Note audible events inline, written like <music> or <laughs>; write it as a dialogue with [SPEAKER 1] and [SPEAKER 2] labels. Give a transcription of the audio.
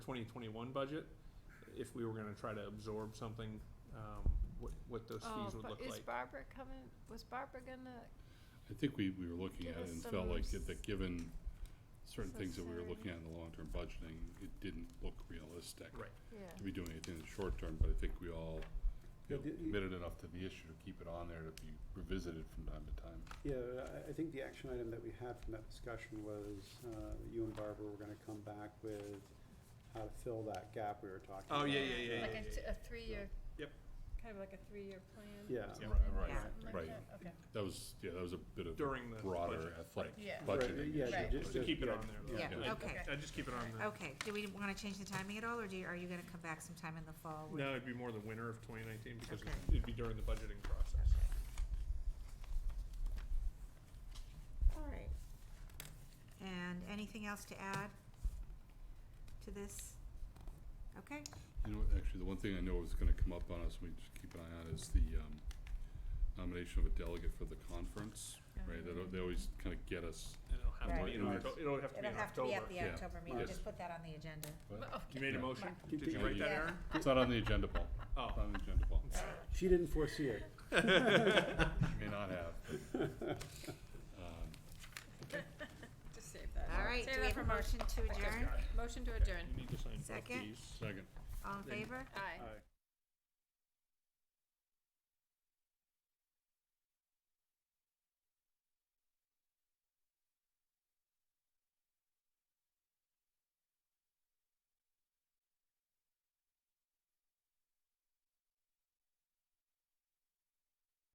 [SPEAKER 1] twenty twenty-one budget, if we were gonna try to absorb something, um, what, what those
[SPEAKER 2] Oh,
[SPEAKER 1] fees would
[SPEAKER 2] but
[SPEAKER 1] look
[SPEAKER 2] Is
[SPEAKER 1] like.
[SPEAKER 2] Barbara coming, was Barbara gonna,
[SPEAKER 3] I think we, we were looking
[SPEAKER 2] Give
[SPEAKER 3] at it
[SPEAKER 2] us
[SPEAKER 3] and
[SPEAKER 2] some
[SPEAKER 3] felt like
[SPEAKER 2] s-
[SPEAKER 3] it- that given certain things that we were looking
[SPEAKER 2] sincerity.
[SPEAKER 3] at in the long-term budgeting, it didn't look realistic.
[SPEAKER 1] Right.
[SPEAKER 3] To
[SPEAKER 2] yeah,
[SPEAKER 3] be doing anything in the short term, but I think we all you
[SPEAKER 4] Yeah,
[SPEAKER 3] know,
[SPEAKER 4] the- the-
[SPEAKER 3] committed enough to the issue to keep it on there to be revisited from time to time.
[SPEAKER 4] Yeah, I, I think the action item that we had from that discussion was, uh, you and Barbara were gonna come back with how to fill that gap we were talking about.
[SPEAKER 1] Oh, yeah, yeah, yeah, yeah,
[SPEAKER 5] Like a, t- a three-year.
[SPEAKER 1] Yep.
[SPEAKER 5] Kind of like a three-year plan?
[SPEAKER 4] Yeah.
[SPEAKER 1] Yeah.
[SPEAKER 5] Something like
[SPEAKER 3] Right.
[SPEAKER 5] that? Okay.
[SPEAKER 3] That was, yeah, that was a bit of
[SPEAKER 1] During the
[SPEAKER 3] broader
[SPEAKER 1] budget.
[SPEAKER 3] athletic
[SPEAKER 5] Yeah.
[SPEAKER 4] Right,
[SPEAKER 3] budgeting.
[SPEAKER 4] yeah,
[SPEAKER 3] issue.
[SPEAKER 5] Right.
[SPEAKER 4] just-
[SPEAKER 1] To keep it
[SPEAKER 4] yeah,
[SPEAKER 1] on there, though.
[SPEAKER 3] Yeah,
[SPEAKER 1] I-
[SPEAKER 6] okay.
[SPEAKER 1] I just keep it on there.
[SPEAKER 6] Okay, do we wanna change the timing at all, or do you, are you gonna come back sometime in the fall? with-
[SPEAKER 1] No, it'd be more the winter of twenty nineteen, because
[SPEAKER 6] Okay.
[SPEAKER 1] it'd be during the budgeting process.
[SPEAKER 6] All right. And anything else to add to this? Okay,
[SPEAKER 3] You know, what, actually, the one thing I know is gonna come up on us, we just keep an eye on, is the um, nomination of a delegate for the conference, right? They
[SPEAKER 2] Oh.
[SPEAKER 3] don't- They always kinda get us,
[SPEAKER 1] And it'll have to be in
[SPEAKER 3] Right.
[SPEAKER 1] Octo- it'll have to be
[SPEAKER 6] it'll
[SPEAKER 1] in
[SPEAKER 6] have to be at
[SPEAKER 1] October.
[SPEAKER 6] the
[SPEAKER 3] Yeah.
[SPEAKER 6] October meeting,
[SPEAKER 3] Yes.
[SPEAKER 6] just put that on the agenda.
[SPEAKER 1] You made a
[SPEAKER 3] Yeah.
[SPEAKER 1] motion?
[SPEAKER 4] Did
[SPEAKER 1] Did you
[SPEAKER 4] you-
[SPEAKER 1] write that,
[SPEAKER 3] Yeah.
[SPEAKER 1] Aaron?
[SPEAKER 3] it's not on the agenda, Paul. It's
[SPEAKER 6] <laughs>
[SPEAKER 1] Oh. <laughs>
[SPEAKER 3] not on the agenda, Paul.
[SPEAKER 4] She didn't foresee it.
[SPEAKER 3] May not have, but, um,
[SPEAKER 5] Just save that.
[SPEAKER 6] All right,
[SPEAKER 5] Save
[SPEAKER 6] do we
[SPEAKER 5] that
[SPEAKER 6] have
[SPEAKER 5] for
[SPEAKER 6] a
[SPEAKER 5] mo-
[SPEAKER 6] motion to adjourn?
[SPEAKER 5] Motion to adjourn.
[SPEAKER 1] You need to sign both
[SPEAKER 6] Second.
[SPEAKER 1] these.
[SPEAKER 3] second.
[SPEAKER 6] All in favor?
[SPEAKER 5] Aye.
[SPEAKER 4] Aye.